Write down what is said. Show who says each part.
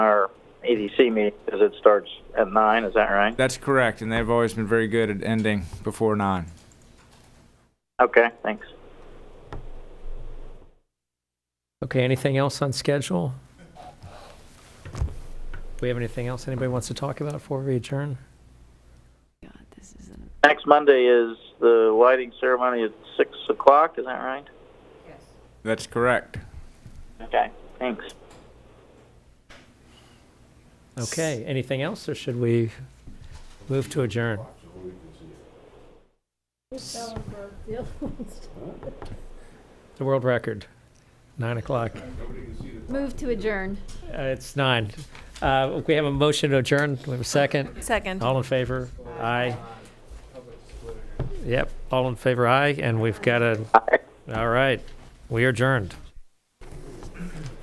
Speaker 1: ADC meeting because it starts at nine, is that right?
Speaker 2: That's correct, and they've always been very good at ending before nine.
Speaker 1: Okay, thanks.
Speaker 3: Okay, anything else on schedule? We have anything else anybody wants to talk about before we adjourn?
Speaker 4: God, this is an
Speaker 1: Next Monday is the lighting ceremony at six o'clock, is that right?
Speaker 2: That's correct.
Speaker 1: Okay, thanks.
Speaker 3: Okay, anything else, or should we move to adjourn? The world record, nine o'clock.
Speaker 4: Move to adjourn.
Speaker 3: Uh, It's nine. Uh, We have a motion to adjourn. Do we have a second?
Speaker 5: Second.
Speaker 3: All in favor? Aye. Yep, all in favor, aye, and we've got a, all right, we adjourned.